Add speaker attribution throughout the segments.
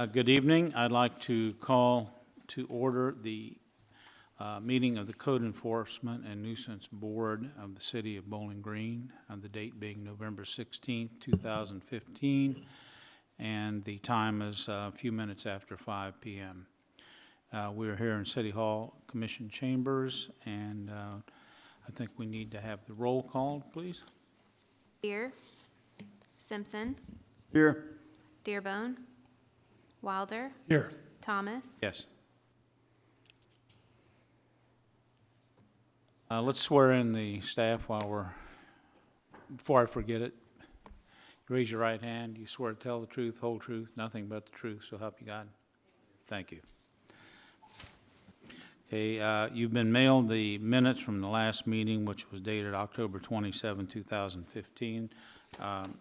Speaker 1: Uh, Good evening. I'd like to call to order the uh, meeting of the Code Enforcement and Nuisance Board of the City of Bowling Green, on the date being November 16, 2015, and the time is uh, a few minutes after 5 p.m. Uh, We are here in City Hall Commission Chambers, and uh, I think we need to have the roll called, please.
Speaker 2: Deer. Simpson.
Speaker 1: Here.
Speaker 2: Dearbone. Wilder.
Speaker 3: Here.
Speaker 2: Thomas.
Speaker 1: Yes. Uh, Let's swear in the staff while we're, before I forget it. Raise your right hand. You swear to tell the truth, whole truth, nothing but the truth, so help you God. Thank you. Okay, uh, you've been mailed the minutes from the last meeting, which was dated October 27, 2015. Um,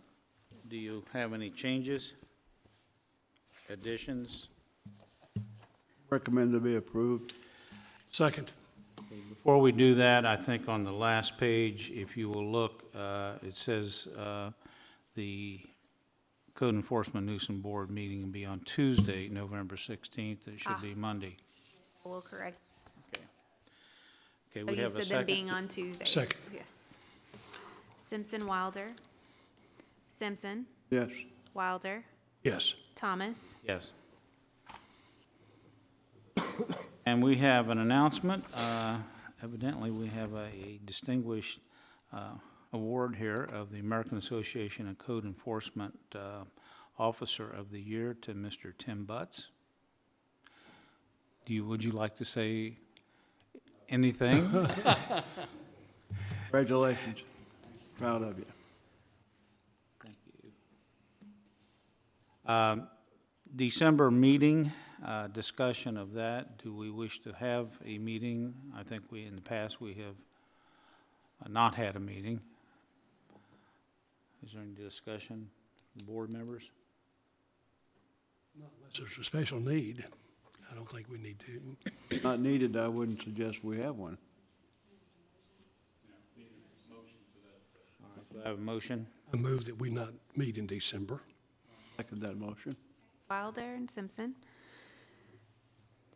Speaker 1: Do you have any changes, additions?
Speaker 4: Recommend to be approved.
Speaker 3: Second.
Speaker 1: Before we do that, I think on the last page, if you will look, uh, it says uh, the Code Enforcement Nuisance Board meeting will be on Tuesday, November 16th. It
Speaker 2: Ah.
Speaker 1: should be Monday.
Speaker 2: Will correct.
Speaker 1: Okay,
Speaker 2: Oh,
Speaker 1: we
Speaker 2: you
Speaker 1: have a
Speaker 2: said them
Speaker 1: second.
Speaker 2: being on Tuesday.
Speaker 3: Second.
Speaker 2: Yes. Simpson, Wilder. Simpson,
Speaker 4: Yes.
Speaker 2: Wilder,
Speaker 3: Yes.
Speaker 2: Thomas.
Speaker 1: Yes. And we have an announcement. Uh, Evidently, we have a distinguished uh, award here of the American Association of Code Enforcement uh, Officer of the Year to Mr. Tim Butts. Do you, would you like to say anything?
Speaker 4: Congratulations. Proud of you.
Speaker 1: Thank you. Um, December meeting, uh, discussion of that, do we wish to have a meeting? I think we, in the past, we have uh, not had a meeting. Is there any discussion, board members?
Speaker 3: Unless there's a special need, I don't think we need to.
Speaker 4: Not needed, I wouldn't suggest we have one.
Speaker 1: All right, do I have a motion?
Speaker 3: I move that we not meet in December.
Speaker 4: Second that motion.
Speaker 2: Wilder and Simpson.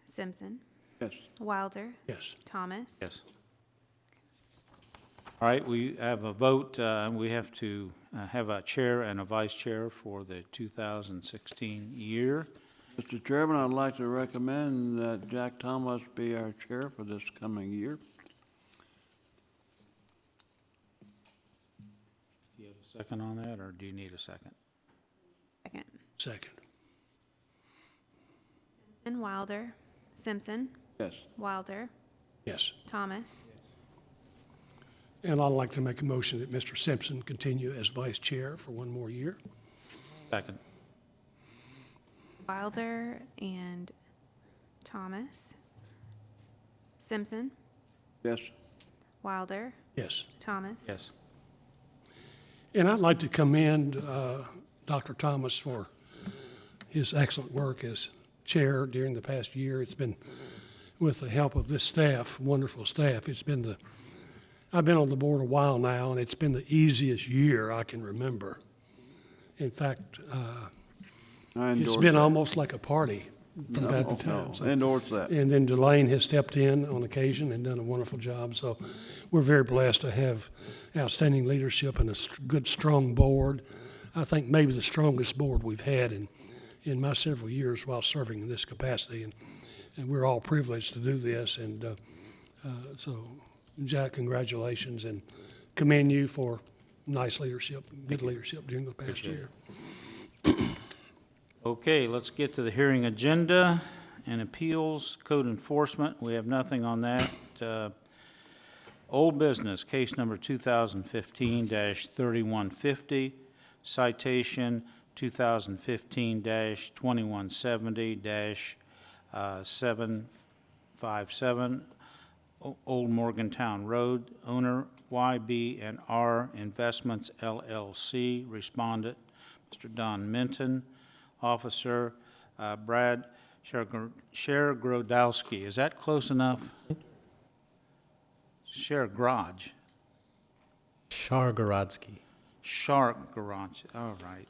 Speaker 2: Simpson,
Speaker 4: Yes.
Speaker 2: Wilder,
Speaker 3: Yes.
Speaker 2: Thomas.
Speaker 1: Yes. All right, we have a vote, uh, and we have to uh, have a chair and a vice chair for the 2016 year.
Speaker 4: Mr. Chairman, I'd like to recommend that Jack Thomas be our chair for this coming year.
Speaker 1: Do you have a second on that, or do you need a second?
Speaker 2: Second.
Speaker 3: Second.
Speaker 2: And Wilder, Simpson,
Speaker 4: Yes.
Speaker 2: Wilder,
Speaker 3: Yes.
Speaker 2: Thomas.
Speaker 3: And I'd like to make a motion that Mr. Simpson continue as vice chair for one more year.
Speaker 1: Second.
Speaker 2: Wilder and Thomas. Simpson,
Speaker 4: Yes.
Speaker 2: Wilder,
Speaker 3: Yes.
Speaker 2: Thomas.
Speaker 1: Yes.
Speaker 3: And I'd like to commend uh, Dr. Thomas for his excellent work as chair during the past year. It's been, with the help of this staff, wonderful staff, it's been the, I've been on the board a while now, and it's been the easiest year I can remember. In fact, uh,
Speaker 4: I endorse
Speaker 3: it's
Speaker 4: that.
Speaker 3: been almost like a party from
Speaker 4: No,
Speaker 3: time to time.
Speaker 4: no,
Speaker 3: so-
Speaker 4: Endorse that.
Speaker 3: and then Delane has stepped in on occasion and done a wonderful job. So we're very blessed to have outstanding leadership and a st- good, strong board. I think maybe the strongest board we've had in, in my several years while serving in this capacity. And, and we're all privileged to do this. And uh, uh, so, Jack, congratulations and commend you for nice leadership, good leadership during the past year.
Speaker 1: Okay, let's get to the hearing agenda and appeals, code enforcement. We have nothing on that. Uh, Old business, case number 2015-3150, citation uh, 2015-2170-757, O- Old Morgantown Road, owner YB and R Investments LLC, respondent, Mr. Don Minton, officer, uh, Brad Shergro- Shergrodowski. Is that close enough? Share garage,
Speaker 5: Shargorodsky.
Speaker 1: shark garage, all right.